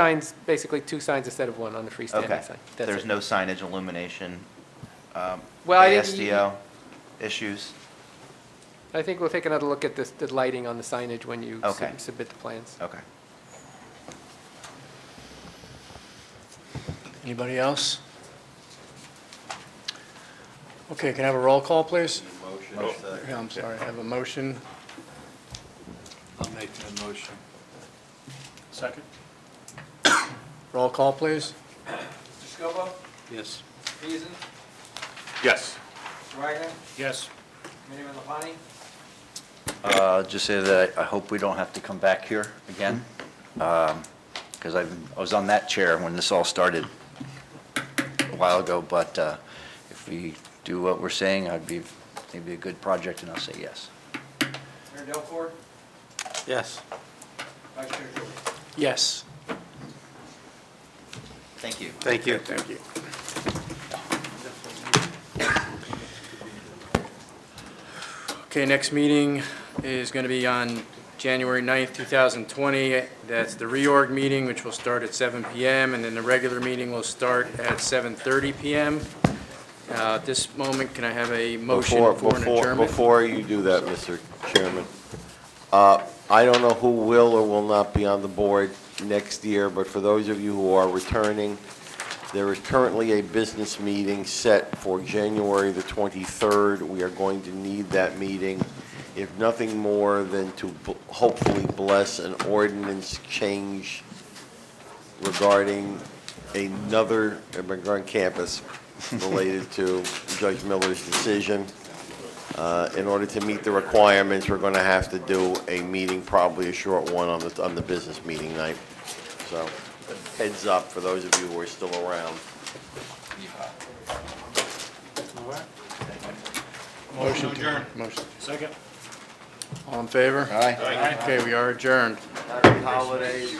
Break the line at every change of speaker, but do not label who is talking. Signs, basically two signs instead of one on the
Okay.
freestanding sign. That's
There's
it.
no signage illumination, um,
Well, I didn't-
ASTO issues?
I think we'll take another look at this, the lighting on the signage when you sub-
Okay.
submit the plans.
Okay.
Anybody else? Okay, can I have a roll call, please? Yeah, I'm sorry, I have a motion.
I'll make that motion.
Second?
Roll call, please.
Scobo,
Yes.
Beason,
Yes.
Wagner,
Yes.
Miniman Lapani,
Uh, Just say that I hope we don't have to come back here again, Mm-hmm. because I was on that chair when this all started a while ago, but uh, if we do what we're saying, I'd be, it'd be a good project, and I'll say yes.
Mayor Delcord,
Yes.
Vice Chair Joey.
Yes.
Thank you.
Thank you.
Thank you. Okay, next meeting is going to be on January 9th, 2020. That's the reorg meeting, which will start at 7 PM, and then the regular meeting will start at 7:30 PM. Uh, At this moment, can I have a motion
Before-
for an
before-
adjournment?
Before you do that, Mr. Chairman, uh, I don't know who will or will not be on the board next year, but for those of you who are returning, there is currently a business meeting set for January the 23rd. We are going to need that meeting, if nothing more than to b- hopefully bless an ordinance change regarding another, regarding campus related to Judge Miller's decision. Uh, In order to meet the requirements, we're going to have to do a meeting, probably a short one on the, on the business meeting night. So heads up for those of you who are still around.
Motion to Motion.
Second?
All in favor?
Aye.
Okay, we are adjourned.
Holidays.